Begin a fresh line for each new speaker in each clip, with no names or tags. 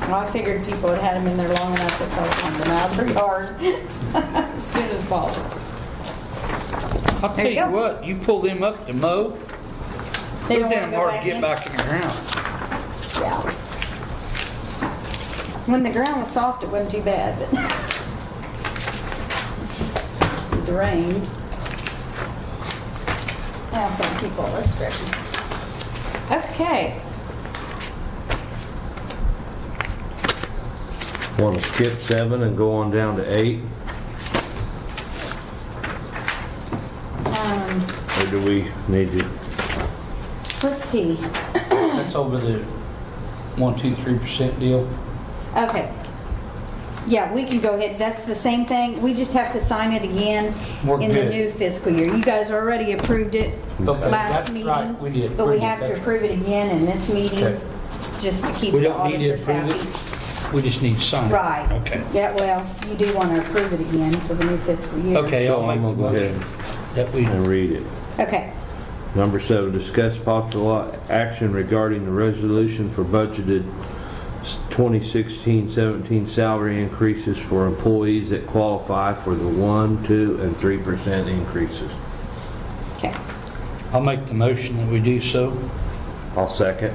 Well, I figured people had had them in there long enough that they found them out of their yard as soon as possible.
I'll
There
tell
you
you
go.
what, you pull them up to mow,
They don't wanna
they're damn
go
hard to get
in.
back in your house.
Yeah. When the ground was soft, it wasn't too bad, but with the rains. Now, I'm gonna keep all this straight. Okay,
Want to skip seven and go on down to eight?
um,
Or do we need to?
let's see.
That's over the one, two, three percent deal.
Okay. Yeah, we can go ahead. That's the same thing. We just have to sign it again
We're
in the
good.
new fiscal year. You guys already approved it
Okay,
last
that's
meeting.
right. We did
But we
approve it.
have to
That's
approve it again in this meeting,
Okay.
just to keep
We
the
don't need to
auditors
approve
happy.
it, we just need to sign it.
Right.
Okay.
Yeah, well, you do want to approve it again for the new fiscal year.
Okay,
So
I'll
I'm
make the
gonna go ahead
motion that we,
and read it.
Okay.
Number seven, discuss possible action regarding the resolution for budgeted 2016-17 salary increases for employees that qualify for the 1, 2, and 3% increases.
Okay.
I'll make the motion that we do so.
I'll second.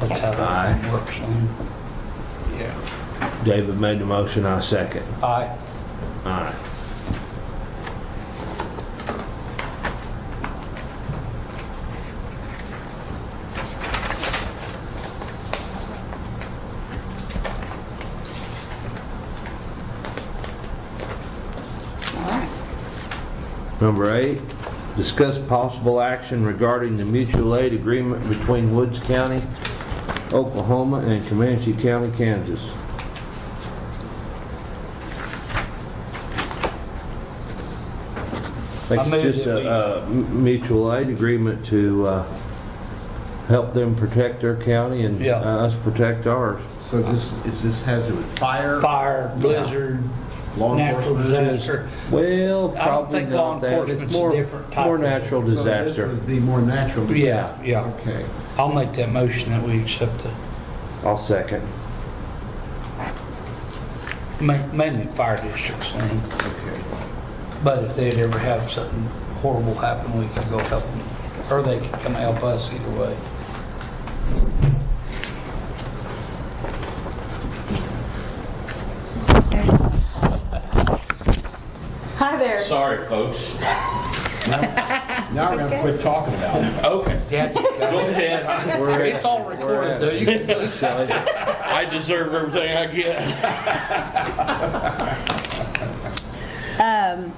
That's how that thing works. huh?
David made the motion, I second.
Aye.
Aye.
All right.
Number eight, discuss possible action regarding the mutual aid agreement between Woods County, Oklahoma, and Comanche County, Kansas. I
I
think
move
it's just
that we-
a, a mutual aid agreement to, uh, help them protect their county and
Yeah.
us protect ours.
So this, is this has to do with fire?
Fire, blizzard,
Law
natural
enforcement.
disaster.
Well,
I don't
probably
think law
not that. It's
enforcement's
more,
different type
more
of-
natural
So this
disaster.
would Be more natural.
Yeah, yeah.
Okay.
I'll make that motion that we accept the,
I'll second.
ma- mainly fire districts thing.
Okay.
But if they'd ever have something horrible happen, we could go help them. Or they could come help us either way.
Hi there.
Sorry, folks.
Now we're gonna quit talking about it.
Okay.
Dad, you got
Go ahead.
it. it's all recorded though. You can go
I deserve everything I get.
Um,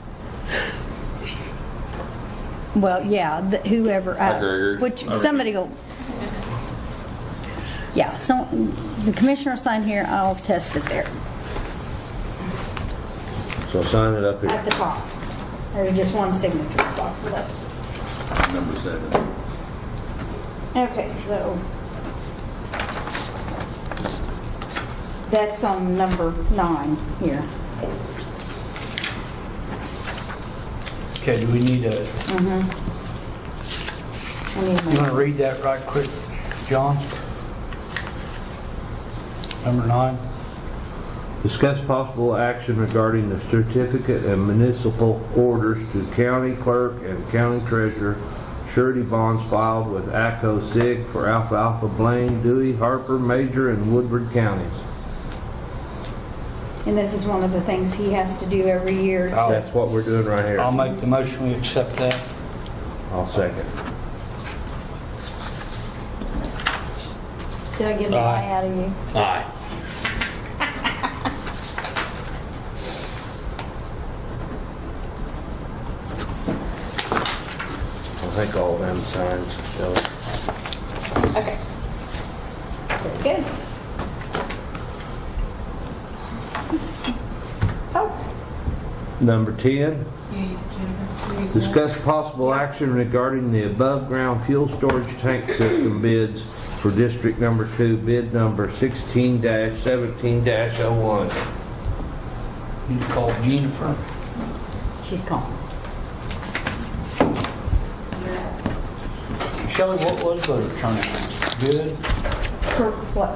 Well, yeah, th- whoever, uh,
Gregor.
which,
Over.
somebody go. Yeah, so the commissioner signed here, I'll test it there.
So sign it up here.
At the top. There's just one signature spot for those.
Number seven.
Okay, so. That's on number nine here.
Okay, do we need a,
I need
you
my-
wanna read that right quick, John? Number nine?
Discuss possible action regarding the certificate and municipal orders to county clerk and county treasurer surety bonds filed with ACO SIG for Alfalfa, Blaine, Dewey, Harper, Major, and Woodward counties.
And this is one of the things he has to do every year.
I'll-
That's what we're doing right
I'll
here.
make the motion, we accept that.
I'll second.
Did I get an
Aye.
eye out of you?
Aye.
I think all them signs, so.
Okay. Very good. Oh,
Number 10, discuss possible action regarding the above-ground fuel storage tank system bids for District Number 2, bid number 16-17-01.
You call Jennifer.
she's calling.
Shelley, what was the return? Good?
For what?